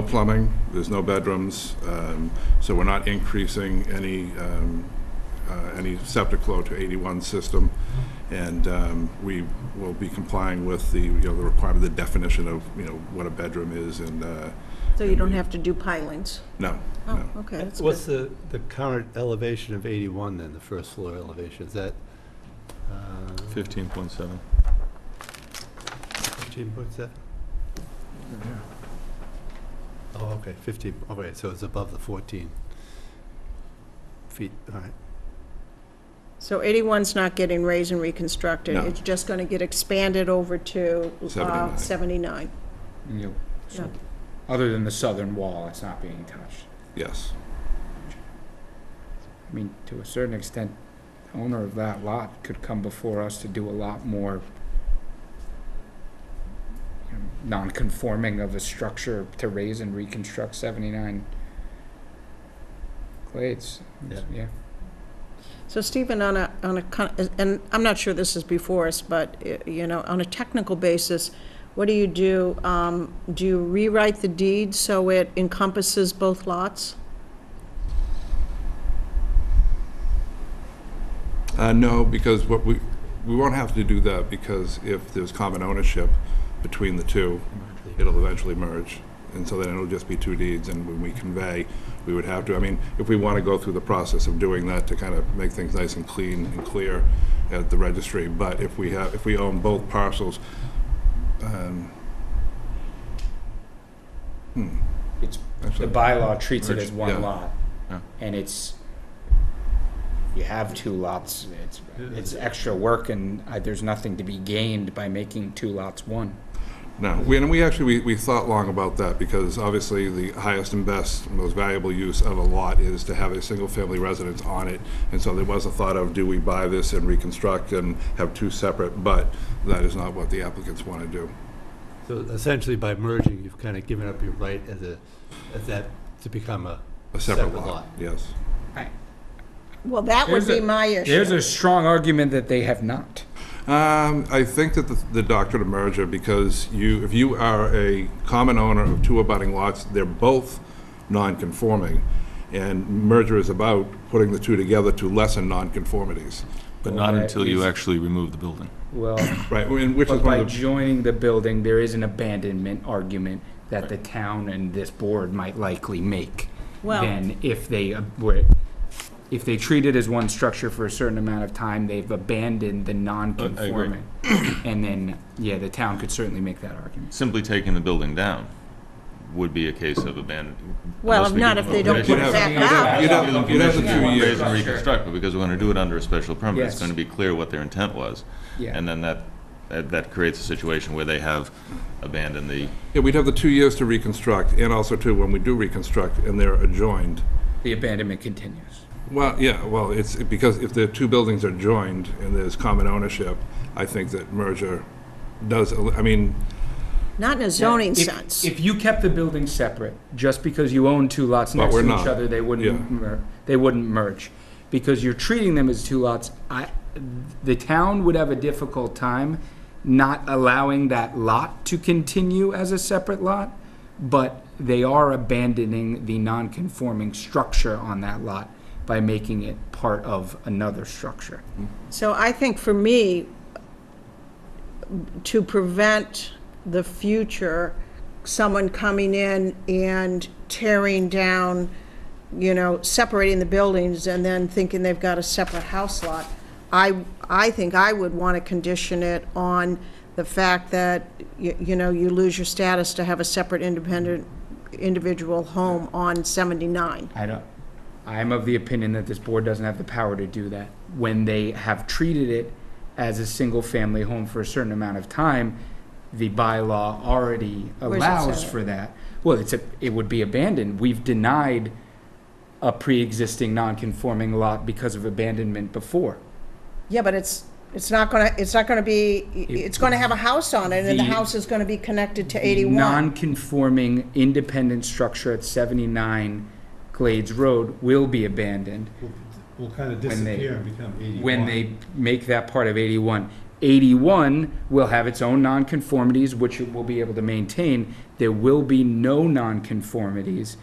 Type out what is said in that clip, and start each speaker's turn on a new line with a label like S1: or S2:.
S1: No plumbing, there's no bedrooms, um, so we're not increasing any, um, uh, any septic flow to 81 system. And um, we will be complying with the, you know, the requirement, the definition of, you know, what a bedroom is and, uh,
S2: So you don't have to do pilings?
S1: no,
S2: Oh,
S1: no.
S2: okay, that's
S3: What's
S2: good.
S3: the, the current elevation of 81 then, the first floor elevation? Is that uh,
S4: 15.7.
S3: 15.7? Oh, okay, 15, all right, so it's above the 14 feet, all right.
S2: So 81's not getting raised and reconstructed?
S1: No.
S2: It's just going to get expanded over to uh,
S1: 79.
S2: 79?
S5: And you-
S2: Yeah.
S5: so- Other than the southern wall, it's not being touched.
S1: Yes,
S5: I mean, to a certain extent, the owner of that lot could come before us to do a lot more you know, non-conforming of a structure to raise and reconstruct seventy-nine glades.
S3: Yeah.
S5: Yeah,
S2: So Stephen, on a, on a, con- and I'm not sure this is before us, but, eh, you know, on a technical basis, what do you do? Um, Do you rewrite the deed so it encompasses both lots?
S1: Uh, no, because what we, we won't have to do that because if there's common ownership between the two, it'll eventually merge. And so then it'll just be two deeds, and when we convey, we would have to, I mean, if we want to go through the process of doing that to kind of make things nice and clean and clear at the registry, but if we have, if we own both parcels, um, hmm,
S5: it's, the
S1: actually,
S5: bylaw treats it
S4: Merge,
S5: as
S1: yeah.
S5: one lot.
S4: Yeah.
S5: And it's, you have two lots, it's,
S3: Yeah.
S5: it's extra work and uh, there's nothing to be gained by making two lots one.
S1: No, we, and we actually, we, we thought long about that, because obviously the highest and best, and most valuable use of a lot is to have a single-family residence on it, and so there was a thought of, do we buy this and reconstruct and have two separate, but that is not what the applicants want to do.
S3: So essentially by merging, you've kind of given up your right as a, as that, to become a,
S1: A separate
S3: Separate
S1: lot,
S3: lot.
S1: yes.
S2: Well, that would
S5: There's
S2: be
S5: a-
S2: my issue.
S5: There's a strong argument that they have not.
S1: Um, I think that the, the doctrine of merger, because you, if you are a common owner of two abutting lots, they're both non-conforming, and merger is about putting the two together to lessen non-conformities.
S4: But not
S5: Or
S4: until
S5: at
S4: you
S5: least-
S4: actually remove the building.
S5: Well,
S1: Right, and which is one
S5: But by
S1: of the.
S5: joining the building, there is an abandonment argument that the town and this board might likely make.
S2: Well-
S5: Then if they uh, were, if they treat it as one structure for a certain amount of time, they've abandoned the non-conforming. And then, yeah, the town could certainly make that argument.
S4: Simply taking the building down would be a case of abandon.
S2: Well,
S4: unless
S2: if
S4: we
S2: not,
S4: give
S2: if
S4: them
S2: they don't
S4: raise
S2: put
S1: You'd
S2: it
S1: have-
S2: back
S1: you'd have-
S2: out.
S1: You'd have,
S4: Give them
S1: you'd have the
S4: permission to
S1: two
S4: Raise and
S1: years.
S4: reconstruct, but because we're gonna do it under a special permit, it's
S5: Yes.
S4: gonna be clear what their intent was.
S5: Yeah.
S4: And then that, that that creates a situation where they have abandoned the,
S1: Yeah, we'd have the two years to reconstruct, and also too, when we do reconstruct and they're adjoined.
S5: The abandonment continues.
S1: Well, yeah, well, it's because if the two buildings are joined and there's common ownership, I think that merger does, I mean,
S2: Not in a zoning
S5: If-
S2: sense.
S5: If you kept the buildings separate, just because you own two lots
S1: But
S5: next
S1: we're
S5: to
S1: not.
S5: each other, they
S1: Yeah.
S5: wouldn't, mer- they wouldn't merge. Because you're treating them as two lots, I, the town would have a difficult time not allowing that lot to continue as a separate lot, but they are abandoning the non-conforming structure on that lot by making it part of another structure.
S2: So I think for me, to prevent the future, someone coming in and tearing down, you know, separating the buildings and then thinking they've got a separate house lot, I, I think I would want to condition it on the fact that, y- you know, you lose your status to have a separate independent, individual home on 79.
S5: I don't, I'm of the opinion that this board doesn't have the power to do that. When they have treated it as a single-family home for a certain amount of time, the bylaw already
S2: Where's it
S5: allows
S2: say it?
S5: for that. Well, it's a, it would be abandoned. We've denied a pre-existing non-conforming lot because of abandonment before.
S2: Yeah, but it's, it's not gonna, it's not gonna be, it's gonna have a house on it, and the
S5: The-
S2: house is gonna be connected to
S5: The
S2: eighty-one.
S5: Non-conforming independent structure at seventy-nine Glades Road will be abandoned.
S3: Will- Will kind of
S5: When they-
S3: disappear and become 81.
S5: when they make that part of 81. 81 will have its own nonconformities, which it will be able to maintain. There will be no nonconformities